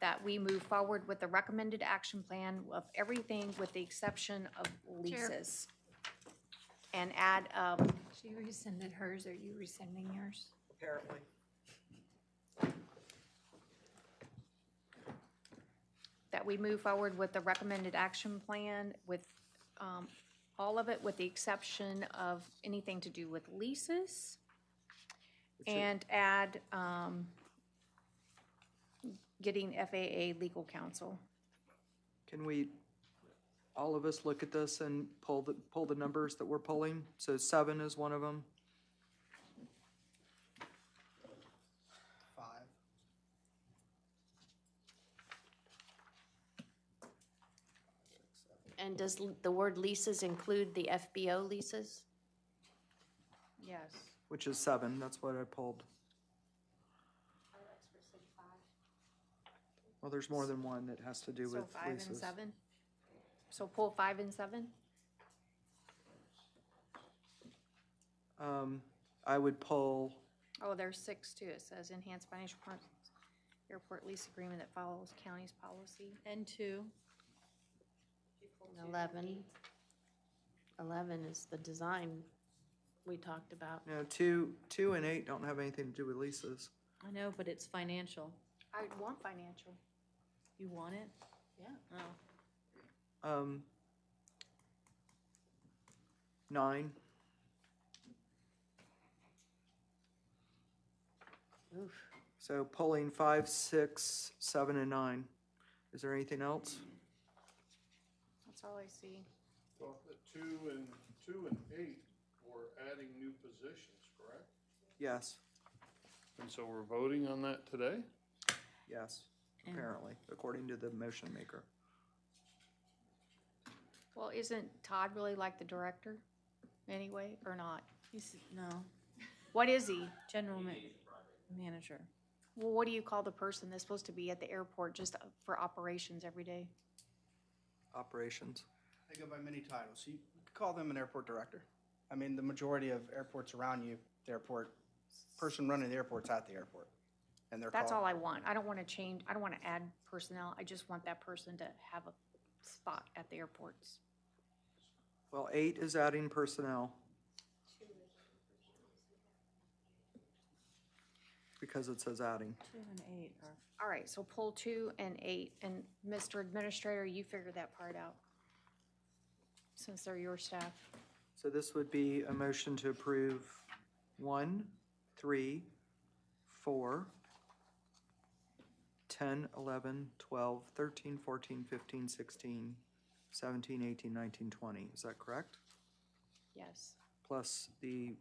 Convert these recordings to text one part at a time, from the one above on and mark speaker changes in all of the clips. Speaker 1: that we move forward with the recommended action plan of everything with the exception of leases. And add, um,
Speaker 2: She rescinded hers, are you rescinding yours?
Speaker 3: apparently.
Speaker 1: that we move forward with the recommended action plan with, um, all of it with the exception of anything to do with leases.
Speaker 3: It should-
Speaker 1: And add, um, getting FAA legal counsel.
Speaker 3: Can we, all of us look at this and pull the, pull the numbers that we're pulling? So seven is one of them.
Speaker 4: Five.
Speaker 5: And does l- the word leases include the FBO leases?
Speaker 1: Yes.
Speaker 3: Which is seven, that's what I pulled. Well, there's more than one that has to do with
Speaker 1: So five and
Speaker 3: leases.
Speaker 1: seven? So pull five and seven?
Speaker 3: Um, I would pull,
Speaker 1: Oh, there's six too. It says enhanced financial partners, airport lease agreement that follows county's policy.
Speaker 5: And two. Eleven. Eleven is the design we talked about.
Speaker 3: no, two, two and eight don't have anything to do with leases.
Speaker 6: I know, but it's financial.
Speaker 1: I would want financial.
Speaker 6: You want it?
Speaker 5: Yeah.
Speaker 6: Oh,
Speaker 3: Um, nine,
Speaker 5: Oof.
Speaker 3: so pulling five, six, seven, and nine. Is there anything else?
Speaker 1: That's all I see.
Speaker 7: Well, the two and, two and eight were adding new positions, correct?
Speaker 3: Yes,
Speaker 7: And so we're voting on that today?
Speaker 3: yes, apparently, according to the motion maker.
Speaker 1: Well, isn't Todd really like the director anyway, or not?
Speaker 6: he's, no,
Speaker 1: What is he?
Speaker 6: general ma- manager.
Speaker 1: Well, what do you call the person that's supposed to be at the airport just for operations every day?
Speaker 3: Operations.
Speaker 4: They go by many titles. You could call them an airport director. I mean, the majority of airports around you, the airport, person running the airport's at the airport. And they're called.
Speaker 1: That's all I want. I don't want to change, I don't want to add personnel. I just want that person to have a spot at the airports.
Speaker 3: Well, eight is adding personnel. Because it says adding.
Speaker 6: Two and eight are.
Speaker 1: All right, so pull two and eight, and Mr. Administrator, you figure that part out, since they're your staff.
Speaker 3: So this would be a motion to approve one, three, four, ten, eleven, twelve, thirteen, fourteen, fifteen, sixteen, seventeen, eighteen, nineteen, twenty. Is that correct?
Speaker 1: Yes,
Speaker 3: Plus the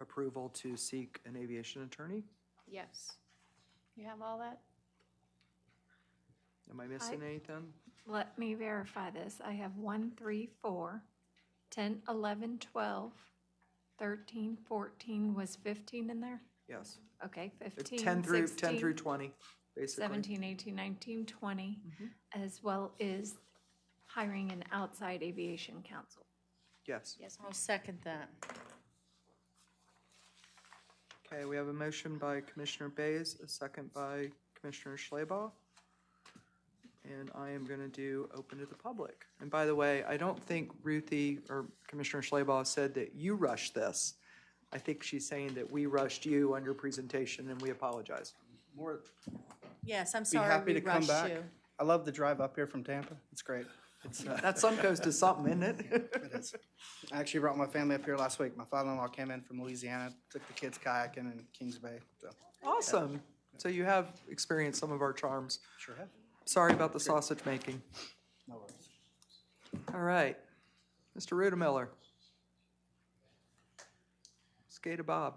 Speaker 3: approval to seek an aviation attorney?
Speaker 1: yes. You have all that?
Speaker 3: Am I missing anything?
Speaker 2: Let me verify this. I have one, three, four, ten, eleven, twelve, thirteen, fourteen, was fifteen in there?
Speaker 3: Yes.
Speaker 2: Okay, fifteen,
Speaker 3: Ten through, ten through
Speaker 2: sixteen,
Speaker 3: twenty, basically. Mm-hmm.
Speaker 2: seventeen, eighteen, nineteen, twenty, as well as hiring an outside aviation council.
Speaker 3: Yes.
Speaker 1: Yes,
Speaker 6: I'll
Speaker 1: ma'am.
Speaker 6: second that.
Speaker 3: Okay, we have a motion by Commissioner Bays, a second by Commissioner Schleba. And I am going to do open to the public. And by the way, I don't think Ruthie or Commissioner Schleba said that you rushed this. I think she's saying that we rushed you on your presentation and we apologize.
Speaker 4: More,
Speaker 6: Yes, I'm
Speaker 4: be
Speaker 6: sorry we
Speaker 4: happy to come
Speaker 6: rushed
Speaker 4: back.
Speaker 6: you.
Speaker 4: I love the drive up here from Tampa. It's great. It's, uh,
Speaker 3: That some goes to something, isn't it?
Speaker 4: It is. I actually brought my family up here last week. My father-in-law came in from Louisiana, took the kids kayaking in Kings Bay, so.
Speaker 3: Awesome. So you have experienced some of our charms.
Speaker 4: Sure have.
Speaker 3: Sorry about the sausage making.
Speaker 4: No worries.
Speaker 3: All right. Mr. Rudemiller. Skate Bob.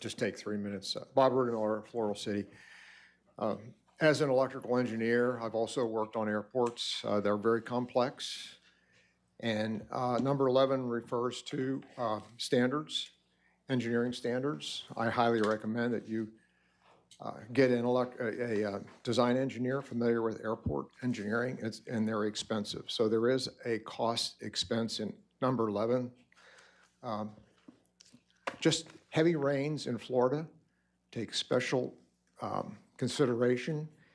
Speaker 8: just take three minutes. Uh, Bob Rudenauer, Floral City. Um, As an electrical engineer, I've also worked on airports. Uh, They're very complex. And uh, number 11 refers to uh, standards, engineering standards. I highly recommend that you uh, get an elec, a, a uh, design engineer familiar with airport engineering, It's- and they're expensive. So there is a cost expense in number 11 just heavy rains in Florida take special um, consideration